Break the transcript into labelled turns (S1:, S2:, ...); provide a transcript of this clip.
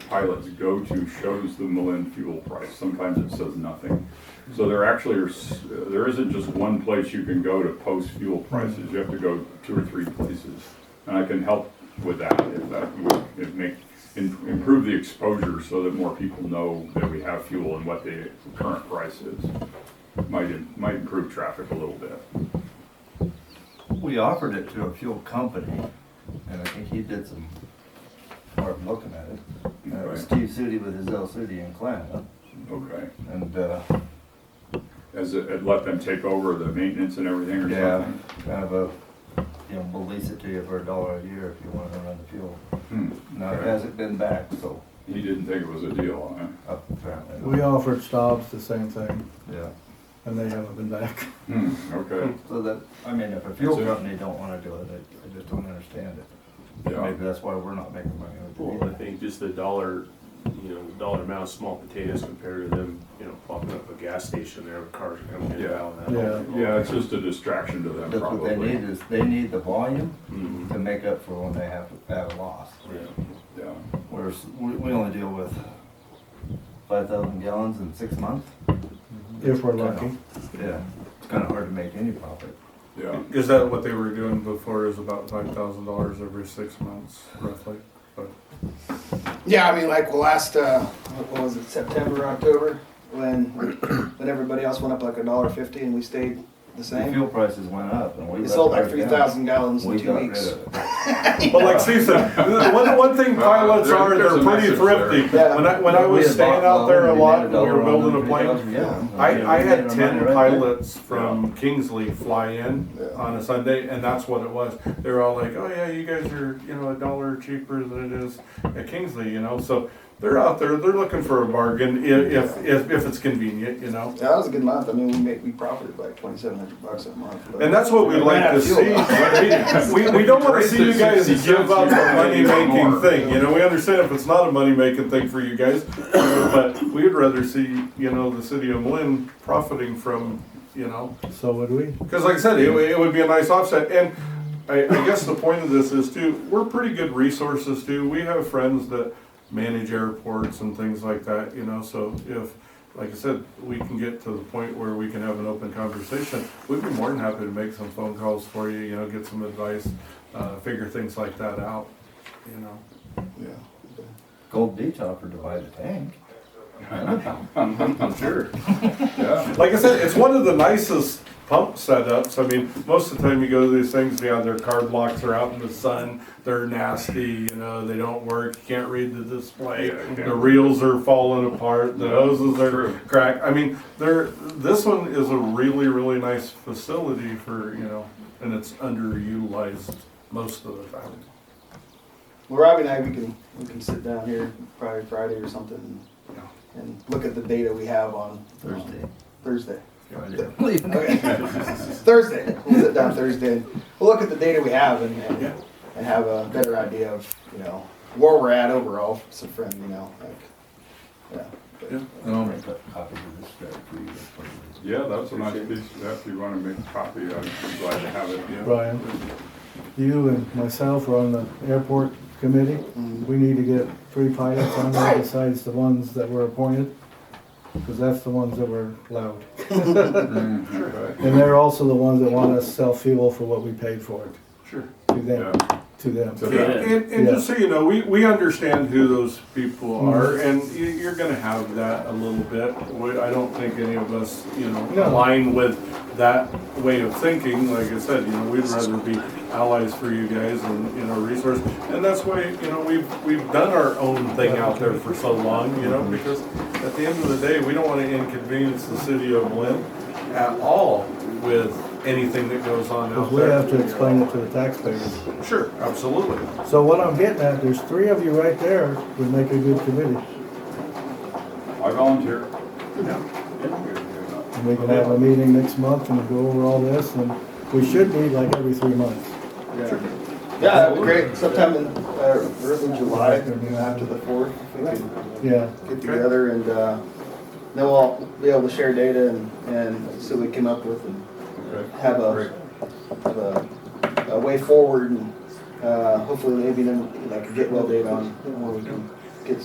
S1: pilots go to shows the Malin fuel price. Sometimes it says nothing. So there actually are, s- uh, there isn't just one place you can go to post fuel prices. You have to go two or three places. And I can help with that if that would if make, im- improve the exposure so that more people know that we have fuel and what the current price is. Might, im- might improve traffic a little bit.
S2: We offered it to a fuel company, and I think he did some hard looking at it. And it was
S1: Okay.
S2: Steve City with his L City in Atlanta,
S1: Okay.
S2: and, uh,
S1: As it, it let them take over the maintenance and everything or
S2: yeah,
S1: something?
S2: kind of a, you know, we'll lease it to you for a dollar a year if you want to run the fuel.
S1: Hmm.
S2: Now, it
S1: Okay.
S2: hasn't been back, so
S1: He didn't think it was a deal, huh?
S2: apparently. not.
S3: We offered Staub's the same thing,
S2: Yeah,
S3: and they haven't been back.
S1: Hmm, okay,
S2: so that, I mean, if a fuel
S1: So-
S2: company don't want to do it, I, I just don't understand it.
S1: yeah,
S2: Maybe that's why we're not making money with it
S4: Well, I
S2: either.
S4: think just the dollar, you know, the dollar amount of small potatoes compared to them, you know, popping up a gas station there with cars coming in and out. and that.
S3: Yeah.
S1: yeah, it's just a distraction to them
S2: That's what they need
S1: probably. Mm-hmm.
S2: is, they need the volume
S4: Mhm.
S2: to make up for when they have, have a loss.
S4: Yeah.
S1: Yeah,
S2: Whereas we, we only deal with five thousand gallons in six months.
S3: If we're lucky,
S2: Yeah, it's kind of hard to make any profit.
S1: yeah,
S5: Is that what they were doing before? Is about five thousand dollars every six months, roughly. But
S6: Yeah, I mean, like last, uh, what was it, September, October, when when everybody else went up like a dollar fifty and we stayed the
S2: The
S6: same.
S2: fuel prices went up and we.
S6: We
S2: let
S6: sold like
S2: ours
S6: three
S2: down.
S6: thousand gallons in
S2: We
S6: two
S2: got rid
S6: weeks.
S2: of it.
S5: But like Steve said, the one, one thing pilots
S1: Uh, there-
S5: are,
S1: there's
S5: they're
S1: a
S5: pretty
S1: message there.
S5: thrifty.
S6: Yeah.
S5: When I, when I
S2: We
S5: was
S2: had
S5: staying
S2: bought
S5: out there a
S2: one,
S5: lot,
S2: had
S5: and we were
S2: another one,
S5: building a plane.
S2: 3,000 gallons.
S5: I, I had
S2: Made our
S5: ten
S2: money right there.
S5: pilots from Kingsley fly in on a Sunday, and that's what it was. They were all like, "Oh yeah, you guys are you know a dollar cheaper than it is at Kingsley," you know. So they're out there, they're looking for a bargain if if if, if it's convenient, you know.
S6: Yeah, that was a good month. I mean, we made we profited like twenty seven hundred bucks a month. but-
S5: And that's what we
S6: Yeah,
S5: like
S6: ran out
S5: to
S6: of fuel.
S5: see. We, we don't want to see you guys give up a money making thing. You know, we understand if it's not a money making thing for you guys, but we'd rather see, you know, the city of Lynn profiting from, you know,
S3: so would we.
S5: because like I said, it, would- it would be a nice offset. And I, I guess the point of this is too, we're pretty good resources too. We have friends that manage airports and things like that, you know, so if, like I said, we can get to the point where we can have an open conversation, we'd be more than happy to make some phone calls for you, you know, get some advice, uh, figure things like that out, you know.
S6: Yeah.
S2: Gold Beach offered to buy the tank.
S1: sure, yeah,
S5: Like I said, it's one of the nicest pump setups. I mean, most of the time you go to these things, yeah, their card locks are out in the sun. They're nasty, you know, they don't work. You can't read the display.
S1: Yeah, you can't.
S5: The reels are falling apart. The hoses are
S1: True.
S5: cracked. I mean, they're, this one is a really, really nice facility for, you know, and it's underutilized most of the time.
S6: Well, Robbie and I, we can we can sit down here probably Friday or something and, and look at the data we have on
S2: Thursday.
S6: Thursday.
S2: Friday. Leaving.
S6: Okay. Thursday. We'll sit down Thursday and we'll look at the data we have and, and,
S5: Yeah.
S6: and have a better idea of, you know, where we're at overall. It's a friend, you know, like, yeah.
S2: And I'll make a copy of this stuff for you. please.
S1: yeah, that's a nice piece, if you wanna make a copy, I'd be glad to have it, yeah.
S3: Brian, you and myself are on the airport committee. We need to get three pilots on there besides the ones that were appointed, because that's the ones that were loud.
S1: Okay.
S3: And they're also the ones that want us to sell fuel for what we paid for it,
S5: Sure.
S3: to them, to them.
S1: Yeah.
S5: And, and- and
S3: Yeah. Mm-hmm.
S5: just so you know, we, we understand who those people are, and you, you're gonna have that a little bit. We- I don't think any of us, you know,
S3: No.
S5: align with that way of thinking. Like I said, you know, we'd rather be allies for you guys and, you know, resource. And that's why, you know, we've, we've done our own thing out there for so long, you
S3: Mm-hmm.
S5: know, because at the end of the day, we don't wanna inconvenience the city of Lynn at all with anything that goes on out
S3: Because we have
S5: there.
S3: to explain it to the taxpayers.
S5: Sure, absolutely.
S3: So what I'm getting at, there's three of you right there would make a good committee.
S1: I volunteer.
S3: And we can have a meeting next month and go over all this, and we should meet like every three months.
S6: Yeah, that'd be great. Sometime in uh, early July, after the fourth, we could
S3: Yeah,
S6: get together and uh, then we'll be able to share data and, and see what we came up with and have a, have a, a way forward and uh, hopefully maybe then like get well data on where we can